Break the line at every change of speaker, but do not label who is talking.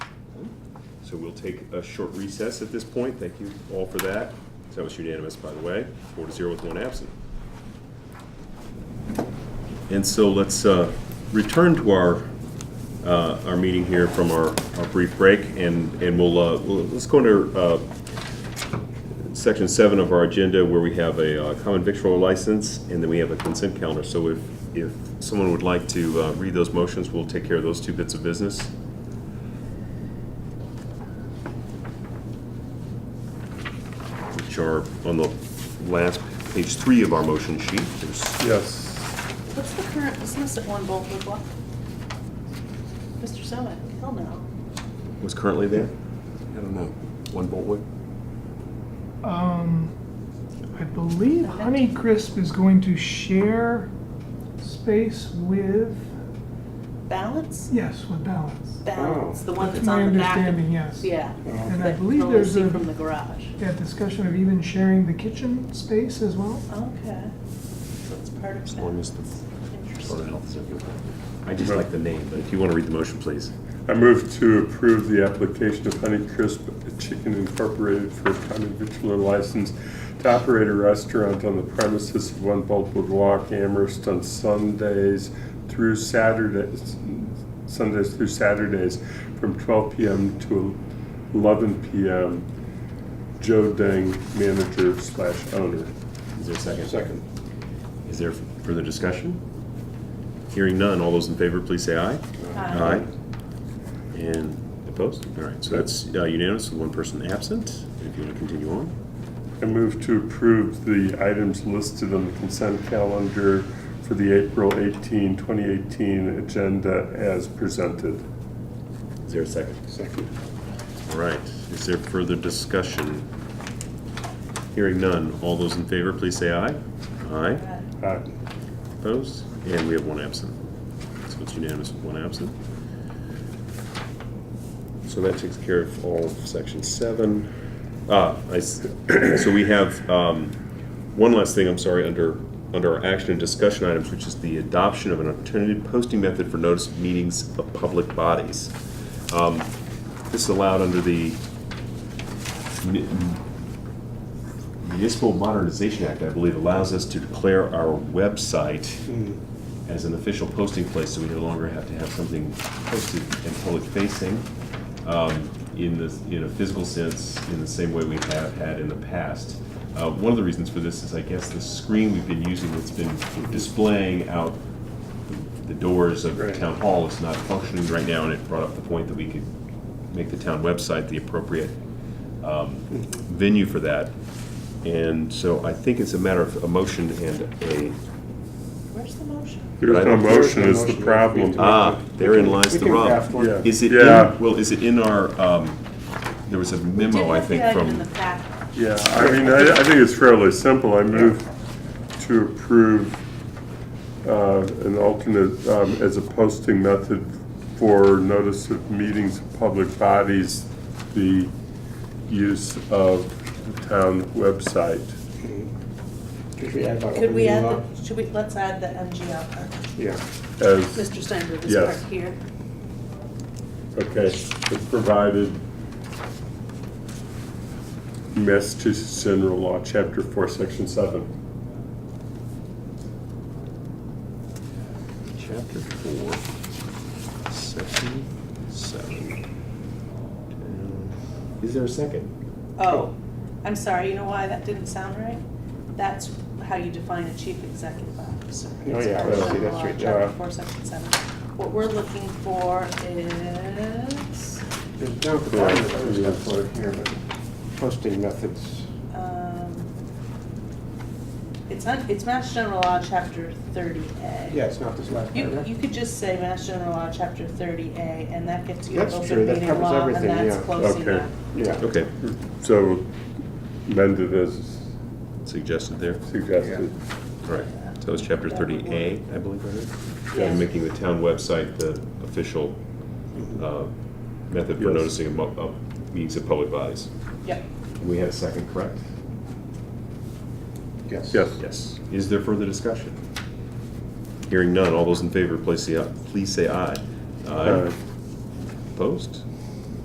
So we'll take a short recess at this point. Thank you all for that. That was unanimous, by the way, four to zero with one absent. And so let's uh, return to our, uh, our meeting here from our our brief break, and, and we'll, uh, we'll- let's go into uh, section seven of our agenda where we have a uh, common victual license, and then we have a consent calendar. So if, if someone would like to uh, read those motions, we'll take care of those two bits of business. Which are on the last, page three of our motion sheet. There's
Yes.
What's the current, isn't this at One Boltwood Block? Mr. Zemek, hell no.
was currently there? I don't know. One Boltwood?
Um, I believe Honeycrisp is going to share space with,
Balance?
yes, with Balance.
Balance, the one
That's
that's
my
on the back. of-
understanding, yes.
Yeah.
And I
that
believe
you'll
there's
see
a,
From the garage.
yeah, discussion of even sharing the kitchen space as well.
Okay. So it's part of that.
as the Board of
Interesting.
Health is okay with that. I just like the name, but if you want to read the motion, please.
I move to approve the application of Honeycrisp Chicken Incorporated for a common victular license to operate a restaurant on the premises of One Boltwood Walk, Amherst, on Sundays through Saturdays, Sundays through Saturdays, from 12 p.m. to 11 p.m. Joe Deng, manager slash owner.
Is there a second? Second. Is there further discussion? Hearing none, all those in favor, please say aye.
Aye.
And opposed? All right, so that's uh, unanimous with one person absent. If you want to continue on.
I move to approve the items listed on the consent calendar for the April 18, 2018 agenda as presented.
Is there a second? Second. All right, is there further discussion? Hearing none, all those in favor, please say aye. Aye.
Aye.
Opposed? And we have one absent. So it's unanimous with one absent. So that takes care of all of section seven. Ah, I s so we have, um, one last thing, I'm sorry, under, under our action and discussion items, which is the adoption of an alternative posting method for notice of meetings of public bodies. Um, This is allowed under the mi- Municipal Modernization Act, I believe, allows us to declare our website as an official posting place, so we no longer have to have something posted and public facing um, in the, in a physical sense, in the same way we have had in the past. Uh, One of the reasons for this is, I guess, the screen we've been using that's been displaying out the- the doors of
Right.
town hall is not functioning right now, and it brought up the point that we could make the town website the appropriate um, venue for that. And so I think it's a matter of a motion and a
Where's the motion?
There's no motion is the problem.
Ah, therein lies
We
the
can
rub.
draft one.
Yeah.
Is it in,
Yeah.
well, is it in our, um, there was a memo, I think,
Did have the item in
from,
the packet.
Yeah, I mean, I, I think it's fairly simple. I move to approve uh, an alternate um, as a posting method for notice of meetings of public bodies, the use of the town website.
Could we add?
Could we add, the- should we, let's add the MG up.
Yeah.
As,
Mr. Steinberg is
Yes.
part here.
okay, as provided Massachusetts General Law, Chapter 4, Section 7.
chapter four, section seven. Uh, Is there a second?
Oh, I'm sorry, you know why that didn't sound right? That's how you define a chief executive officer.
Oh,
It's
yeah, I
per
see,
General
that's
Law,
right,
Chapter
yeah.
four, section seven. What we're looking for is,
There's no requirement that we have for it here, but posting methods.
um, it's, un- it's Mass General Law, chapter thirty A.
Yeah, it's not this last
You,
paragraph.
you could just say Mass General Law, chapter thirty A, and that gets you
That's true,
open
that
meeting
covers
law, and
everything,
that's
yeah.
close
Okay.
enough.
Yeah.
Okay,
So amended as
suggested there,
suggested.
all right. So it was chapter thirty A, I believe, right?
Yeah.
And making the town website the official, uh, method for
Yes.
noticing of, mo- of meetings of public bodies.
Yep.
We had a second, correct?
Yes.
Yes.
Yes. Is there further discussion? Hearing none, all those in favor, please say, please say aye.
Uh,
Opposed?